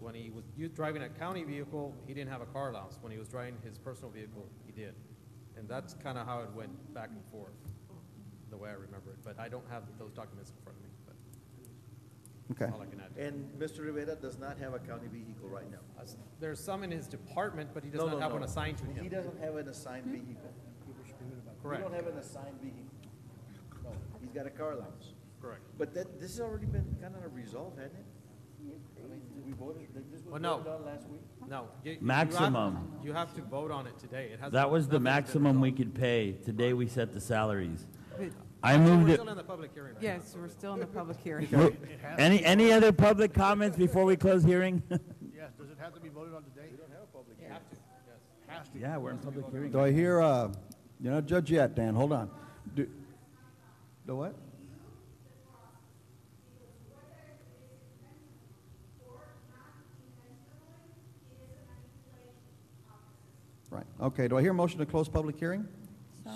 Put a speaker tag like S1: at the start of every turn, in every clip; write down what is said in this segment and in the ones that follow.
S1: When he was u- driving a county vehicle, he didn't have a car allowance. When he was driving his personal vehicle, he did. And that's kind of how it went back and forth, the way I remember it. But I don't have those documents in front of me, but
S2: Okay.
S1: that's all I can add. to that.
S3: And Mr. Rivera does not have a county vehicle right now.
S1: Uh, s- There's some in his department, but he does
S3: No,
S1: not
S3: no,
S1: have one
S3: no.
S1: assigned to
S3: He
S1: him.
S3: doesn't have an assigned vehicle.
S1: Hmm? Correct.
S3: You don't have an assigned vehicle. No, he's got a car allowance.
S1: Correct.
S3: But that, this has already been kind of resolved, hasn't it? I mean, we voted, this
S1: Well,
S3: was
S1: no.
S3: voted on last week.
S1: No. you- you have-
S4: Maximum.
S1: You have to vote on it today. It has.
S4: That was the
S1: nothing's been
S4: maximum we
S1: resolved.
S4: could pay. Today, we set the salaries. I
S1: Actually,
S4: moved
S1: We're
S4: it.
S1: still in the public hearing right now.
S5: Yes,
S1: so
S5: we're
S1: it-
S5: still in the public hearing.
S4: Mo- Any, any other public comments before we close hearing?
S6: Yes, does it have to be voted on today? We don't have a public hearing. Has to.
S4: Yeah, we're in public hearing.
S2: Do I hear, uh, you're not judge yet, Dan, hold on. Do, the what? Right, okay, do I hear a motion to close public hearing?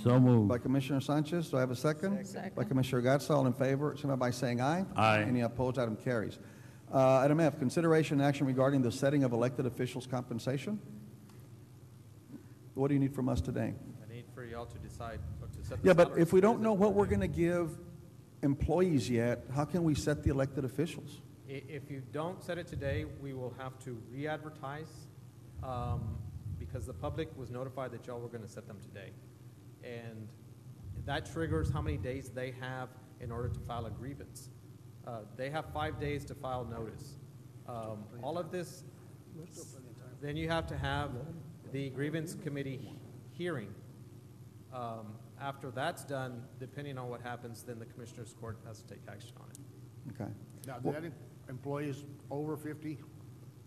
S4: So
S2: By
S4: moved.
S2: Commissioner Sanchez, do I have a second?
S5: Second.
S2: By Commissioner Gatsa, all in favor, signify by saying aye.
S4: Aye.
S2: Any opposed, item carries. Uh, Item F, consideration and action regarding the setting of elected officials' compensation. What do you need from us today?
S1: I need for y'all to decide what to set the
S2: Yeah, but
S1: salaries.
S2: if we don't know what we're going to give employees yet, how can we set the elected officials?
S1: I- If you don't set it today, we will have to re-advertise, um, because the public was notified that y'all were gonna set them today. And that triggers how many days they have in order to file a grievance. Uh, They have five days to file notice. Um, All of this, then you have to have the grievance committee hearing. Um, After that's done, depending on what happens, then the commissioners' court has to take action on it.
S2: Okay.
S6: Now, did that em- employees over fifty,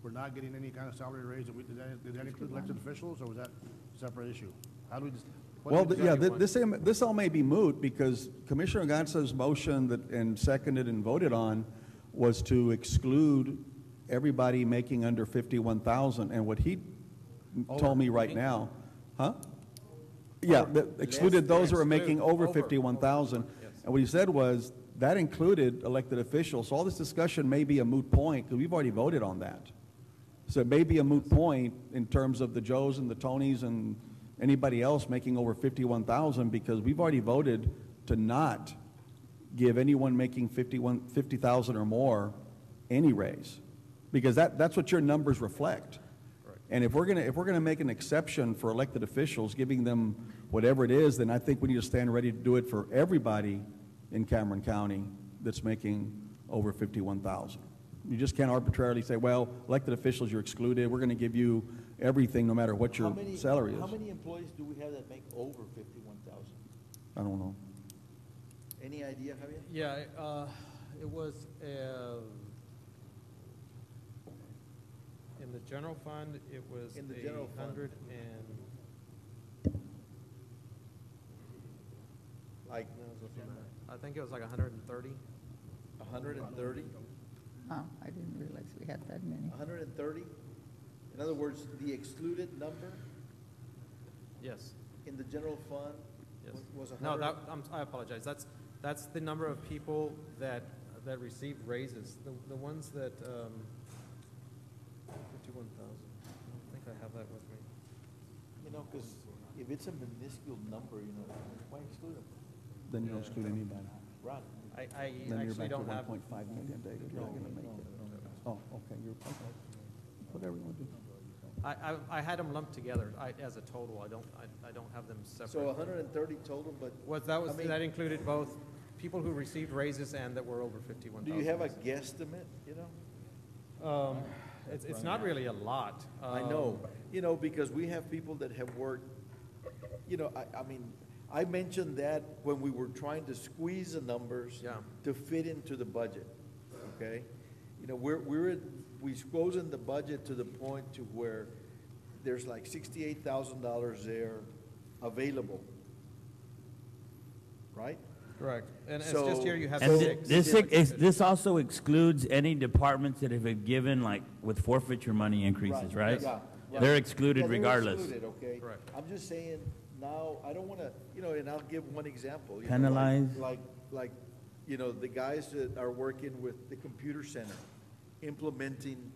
S6: were not getting any kind of salary raise, did we- did that, did that include elected officials, or was that a separate issue? How do we just? what do
S2: Well,
S6: we
S2: th- yeah,
S6: decide?
S2: thi- this, am- this all may be moot because Commissioner Gatsa's motion that, and seconded and voted on was to exclude everybody making under 51,000. And what he told me right now, huh? Yeah, that excluded those who are making over 51,000. And what he said was, that included elected officials. So all this discussion may be a moot point because we've already voted on that. So it may be a moot point in terms of the Joes and the Tonys and anybody else making over 51,000 because we've already voted to not give anyone making 51, 50,000 or more any raise. Because that, that's what your numbers reflect. And if we're gonna, if we're gonna make an exception for elected officials, giving them whatever it is, then I think we need to stand ready to do it for everybody in Cameron County that's making over fifty-one thousand. You just can't arbitrarily say, well, elected officials, you're excluded, we're gonna give you everything, no matter what
S3: How
S2: your
S3: many-
S2: salary is.
S3: How many employees do we have that make over fifty-one thousand?
S2: I don't know.
S3: Any idea, Javier?
S1: Yeah, uh, it was, uh, in the general fund, it was
S3: In the
S1: a
S3: general fund.
S1: hundred and,
S3: Like
S1: I think it was like a hundred and thirty.
S3: a hundred and thirty?
S7: Oh, I didn't realize we had that many.
S3: A hundred and thirty? In other words, the excluded number
S1: Yes,
S3: in the general fund
S1: yes.
S3: was- was a
S1: No,
S3: hundred?
S1: that, I'm, I apologize. That's, that's the number of people that, that received raises. The, the ones that, um, fifty-one thousand. I think I have that with me.
S3: You know, because if it's a minuscule number, you know, why exclude them?
S2: Then you don't exclude anybody.
S3: Right.
S1: I, I
S2: Then you're
S1: actually
S2: back to
S1: don't have.
S2: one point five million, David, you're not gonna make it. Oh, okay, you're, okay. Whatever you wanna do.
S1: I, I, I had them lumped together, I, as a total, I don't, I, I don't have them
S3: So
S1: separate.
S3: hundred and thirty total, but
S1: Was, that was,
S3: I mean-
S1: that included both people who received raises and that were over fifty-one
S3: do
S1: thousand.
S3: you have a guesstimate, you know?
S1: Um, it's, it's not really a lot. Um,
S3: I know, you know, because we have people that have worked, you know, I, I mean, I mentioned that when we were trying to squeeze the numbers
S1: Yeah.
S3: to fit into the budget, okay? You know, we're, we're, at- we squeezed in the budget to the point to where there's like sixty-eight thousand dollars there available, right?
S1: Correct, and it's
S3: So-
S1: just here you have
S4: And thi-
S1: six.
S4: this, ex- this also excludes any departments that have been given, like, with forfeiture money increases, right?
S3: Yeah, yeah.
S4: They're
S3: Yeah,
S4: excluded
S3: they're
S4: regardless.
S3: excluded, okay?
S1: Correct.
S3: I'm just saying, now, I don't wanna, you know, and I'll give one example. you know, like-
S4: Penalize.
S3: Like, like, you know, the guys that are working with the computer center, implementing